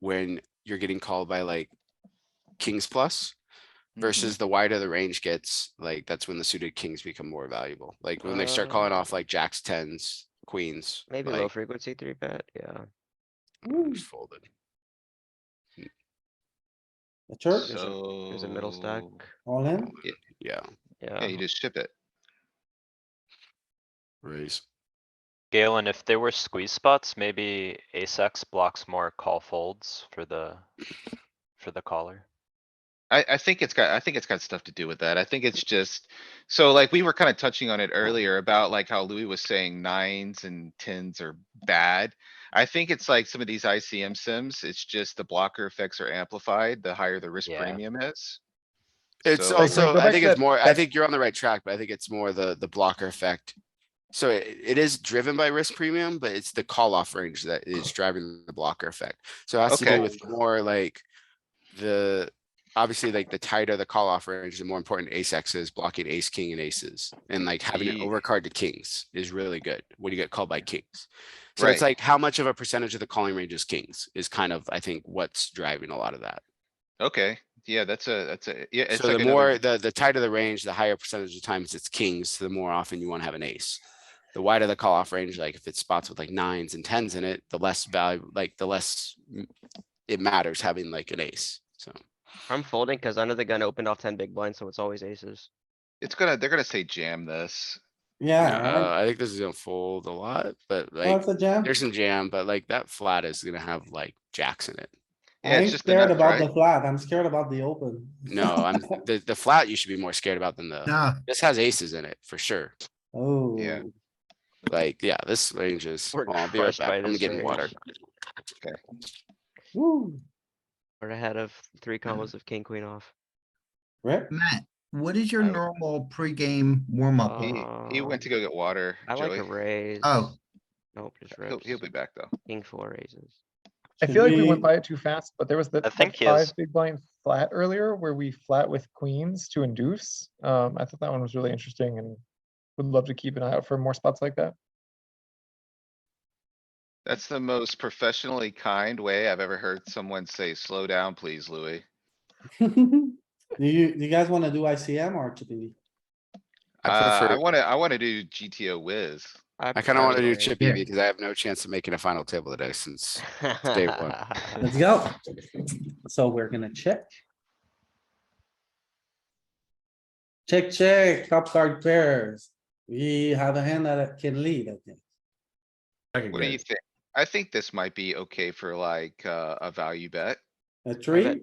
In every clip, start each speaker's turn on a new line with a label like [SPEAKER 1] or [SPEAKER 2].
[SPEAKER 1] when you're getting called by like kings plus versus the wider the range gets, like that's when the suited kings become more valuable. Like when they start calling
[SPEAKER 2] Uh,
[SPEAKER 1] off like jacks, tens, queens.
[SPEAKER 2] Maybe low
[SPEAKER 1] like,
[SPEAKER 2] frequency three bet, yeah.
[SPEAKER 1] ooh, it's folded.
[SPEAKER 3] The church,
[SPEAKER 2] There's a- there's a middle stack,
[SPEAKER 4] So,
[SPEAKER 3] all in,
[SPEAKER 1] Yeah,
[SPEAKER 4] Yeah,
[SPEAKER 2] yeah.
[SPEAKER 4] you just ship it.
[SPEAKER 1] raise.
[SPEAKER 5] Galen, if there were squeeze spots, maybe ace X blocks more call folds for the, for the caller.
[SPEAKER 4] I, I think it's got, I think it's got stuff to do with that. I think it's just, so like we were kind of touching on it earlier about like how Louis was saying nines and tens are bad. I think it's like some of these ICM sims, it's just the blocker effects are amplified, the higher the risk
[SPEAKER 5] Yeah.
[SPEAKER 4] premium is.
[SPEAKER 1] It's
[SPEAKER 4] So-
[SPEAKER 1] also,
[SPEAKER 6] go
[SPEAKER 1] I
[SPEAKER 6] back
[SPEAKER 1] think
[SPEAKER 6] to
[SPEAKER 1] it's
[SPEAKER 6] that-
[SPEAKER 1] more, I
[SPEAKER 6] that-
[SPEAKER 1] think you're on the right track, but I think it's more the, the blocker effect. So it, it is driven by risk premium, but it's the call off range that is driving the blocker effect. So it has to
[SPEAKER 4] Okay.
[SPEAKER 1] do with more like the, obviously like the tighter the call off range, the more important ace X is blocking ace, king and aces. And like having an
[SPEAKER 4] Ye-
[SPEAKER 1] overcard to kings is really good when you get called by kings. So it's
[SPEAKER 4] Right.
[SPEAKER 1] like how much of a percentage of the calling range is kings is kind of, I think, what's driving a lot of that.
[SPEAKER 4] Okay, yeah, that's a, that's a, yeah, it's
[SPEAKER 1] So
[SPEAKER 4] like
[SPEAKER 1] the more,
[SPEAKER 4] another,
[SPEAKER 1] the, the tighter the range, the higher percentage of times it's kings, the more often you wanna have an ace. The wider the call off range, like if it's spots with like nines and tens in it, the less value, like the less mm, it matters having like an ace, so.
[SPEAKER 2] I'm folding cuz under the gun opened off ten big blinds, so it's always aces.
[SPEAKER 4] it's gonna, they're gonna say jam this.
[SPEAKER 3] yeah,
[SPEAKER 1] Uh, I think this is gonna fold a lot, but like,
[SPEAKER 3] that's a jam.
[SPEAKER 1] there's some jam, but like that flat is gonna have like jacks in it.
[SPEAKER 4] Yeah,
[SPEAKER 3] I
[SPEAKER 4] it's
[SPEAKER 3] ain't
[SPEAKER 4] just the
[SPEAKER 3] scared
[SPEAKER 4] nuts,
[SPEAKER 3] about the
[SPEAKER 4] right?
[SPEAKER 3] flat, I'm scared about the open.
[SPEAKER 1] No, I'm, the, the flat you should be more scared about than
[SPEAKER 5] uh,
[SPEAKER 1] the,
[SPEAKER 6] Yeah,
[SPEAKER 1] this has aces in it for sure.
[SPEAKER 3] Oh.
[SPEAKER 4] Yeah.
[SPEAKER 1] Like, yeah, this range is,
[SPEAKER 2] We're
[SPEAKER 1] well, I'll be right
[SPEAKER 2] crushed
[SPEAKER 1] back.
[SPEAKER 2] by
[SPEAKER 1] I'm
[SPEAKER 2] this
[SPEAKER 1] getting
[SPEAKER 2] range.
[SPEAKER 1] water.
[SPEAKER 3] Woo,
[SPEAKER 2] We're ahead of three
[SPEAKER 4] Mm-hmm.
[SPEAKER 2] combos of king, queen off.
[SPEAKER 3] rip,
[SPEAKER 6] Matt, what is your
[SPEAKER 2] I would-
[SPEAKER 6] normal pregame
[SPEAKER 7] Uh,
[SPEAKER 6] warm-up?
[SPEAKER 4] He, he went to go get water,
[SPEAKER 2] Uh-huh. I
[SPEAKER 4] Joey.
[SPEAKER 2] like a raise.
[SPEAKER 6] Oh.
[SPEAKER 2] Nope, just
[SPEAKER 4] He'll,
[SPEAKER 2] rips.
[SPEAKER 4] he'll be back though.
[SPEAKER 2] King four raises.
[SPEAKER 7] I
[SPEAKER 3] Should
[SPEAKER 7] feel like we
[SPEAKER 3] we-
[SPEAKER 7] went by it too fast, but there was the
[SPEAKER 5] I
[SPEAKER 7] that
[SPEAKER 5] think he
[SPEAKER 7] five
[SPEAKER 5] is-
[SPEAKER 7] big blind flat earlier where we flat with queens to induce. Um, I thought that one was really interesting and would love to keep an eye out for more spots like that.
[SPEAKER 4] That's the most professionally kind way I've ever heard someone say, slow down, please, Louis.
[SPEAKER 3] do you, do you guys wanna do ICM or chippy?
[SPEAKER 1] I
[SPEAKER 4] Uh, I
[SPEAKER 1] prefer,
[SPEAKER 4] wanna, I wanna do GTO whiz.
[SPEAKER 1] I kinda wanna do
[SPEAKER 2] chip.
[SPEAKER 1] chippy because I have no chance of making a final table today since day one.
[SPEAKER 3] Let's go. So we're gonna check. Check, check, top card pairs. We have a hand that can lead, I think.
[SPEAKER 4] What do you think? I think this might be okay for like, uh, a value bet.
[SPEAKER 3] A three?
[SPEAKER 2] bet-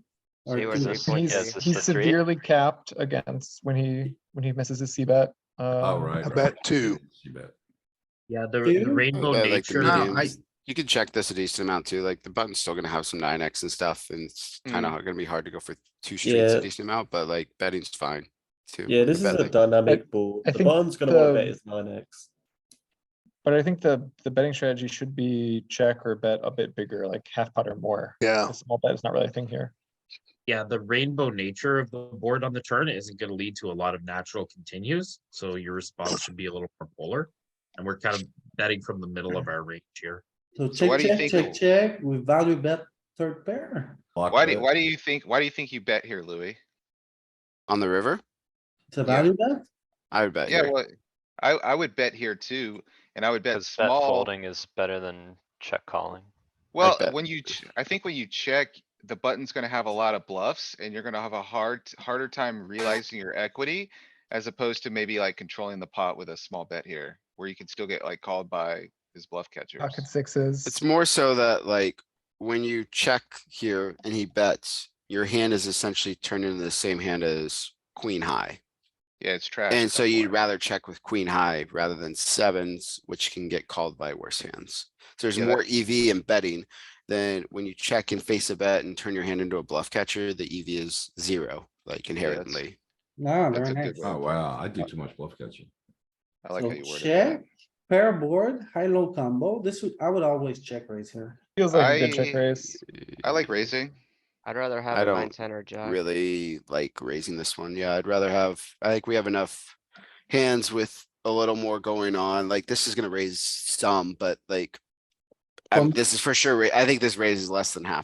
[SPEAKER 3] or
[SPEAKER 2] see where
[SPEAKER 3] two?
[SPEAKER 2] the
[SPEAKER 7] He's,
[SPEAKER 2] Three point- yeah, is
[SPEAKER 7] he's,
[SPEAKER 5] this
[SPEAKER 7] he's
[SPEAKER 5] the three?
[SPEAKER 7] severely capped against when he, when he misses his C bet.
[SPEAKER 8] Oh,
[SPEAKER 7] Um,
[SPEAKER 8] right.
[SPEAKER 9] About two.
[SPEAKER 10] Yeah, the, the
[SPEAKER 3] Two?
[SPEAKER 10] rainbow
[SPEAKER 1] Yeah, like the
[SPEAKER 10] nature.
[SPEAKER 1] medium.
[SPEAKER 6] No, I,
[SPEAKER 1] You can check this a decent amount too, like the button's still gonna have some nine X and stuff and it's kinda hard- gonna be hard to go for two streets
[SPEAKER 11] Mm. Yeah.
[SPEAKER 1] a decent amount, but like betting's fine. Too.
[SPEAKER 11] yeah, this is
[SPEAKER 1] Bet,
[SPEAKER 11] a
[SPEAKER 1] like,
[SPEAKER 11] dynamic board.
[SPEAKER 7] I
[SPEAKER 11] The
[SPEAKER 7] think
[SPEAKER 11] bottom's gonna want to
[SPEAKER 7] the-
[SPEAKER 11] bet his nine X.
[SPEAKER 7] But I think the, the betting strategy should be check or bet a bit bigger, like half pot or more.
[SPEAKER 9] Yeah.
[SPEAKER 7] A small bet is not really a thing here.
[SPEAKER 10] Yeah, the rainbow nature of the board on the turn isn't going to lead to a lot of natural continues. So your response should be a little more polar. And we're kind of betting from the middle of our range here.
[SPEAKER 3] So
[SPEAKER 4] So why
[SPEAKER 3] check,
[SPEAKER 4] do you
[SPEAKER 3] check, check,
[SPEAKER 4] think-
[SPEAKER 3] check, we value bet third pair.
[SPEAKER 4] Why do, why do you think, why do you think you bet here, Louis?
[SPEAKER 1] On the river,
[SPEAKER 3] It's a
[SPEAKER 4] Yeah.
[SPEAKER 3] value bet?
[SPEAKER 1] I would bet
[SPEAKER 4] Yeah,
[SPEAKER 1] here.
[SPEAKER 4] well, I, I would bet here too, and I would bet
[SPEAKER 5] Cause bet
[SPEAKER 4] small.
[SPEAKER 5] folding is better than check calling.
[SPEAKER 4] Well,
[SPEAKER 1] bet.
[SPEAKER 4] when you, ch- I think when you check, the button's gonna have a lot of bluffs and you're gonna have a hard, harder time realizing your equity. As opposed to maybe like controlling the pot with a small bet here, where you can still get like called by his bluff catchers.
[SPEAKER 7] Pocket sixes.
[SPEAKER 1] It's more so that like, when you check here and he bets, your hand is essentially turned into the same hand as queen high.
[SPEAKER 4] Yeah, it's trash. at
[SPEAKER 1] And
[SPEAKER 4] that
[SPEAKER 1] so you'd
[SPEAKER 4] point.
[SPEAKER 1] rather check with queen high rather than sevens, which can get called by worse hands. So there's
[SPEAKER 4] Yeah,
[SPEAKER 1] more EV in betting than when you check and face a bet and turn your hand into a bluff catcher, the EV is zero, like
[SPEAKER 4] that's-
[SPEAKER 1] inherently.
[SPEAKER 3] No,
[SPEAKER 4] That's
[SPEAKER 3] very
[SPEAKER 4] a good
[SPEAKER 3] nice.
[SPEAKER 4] one.
[SPEAKER 8] Oh, wow, I do too much bluff catching.
[SPEAKER 4] I like
[SPEAKER 3] So
[SPEAKER 4] how you worded
[SPEAKER 3] Check,
[SPEAKER 4] that.
[SPEAKER 3] pair board, high, low combo. This would, I would always check raise here.
[SPEAKER 7] Feels like a good
[SPEAKER 4] I-
[SPEAKER 7] check raise.
[SPEAKER 4] I like raising.
[SPEAKER 2] I'd rather
[SPEAKER 1] I
[SPEAKER 2] have a nine,
[SPEAKER 1] don't
[SPEAKER 2] ten or jack.
[SPEAKER 1] Really like raising this one. Yeah, I'd rather have, I think we have enough hands with a little more going on. Like this is gonna raise some, but like, I-
[SPEAKER 3] Um,
[SPEAKER 1] this is for sure. ra- I think this raises less than half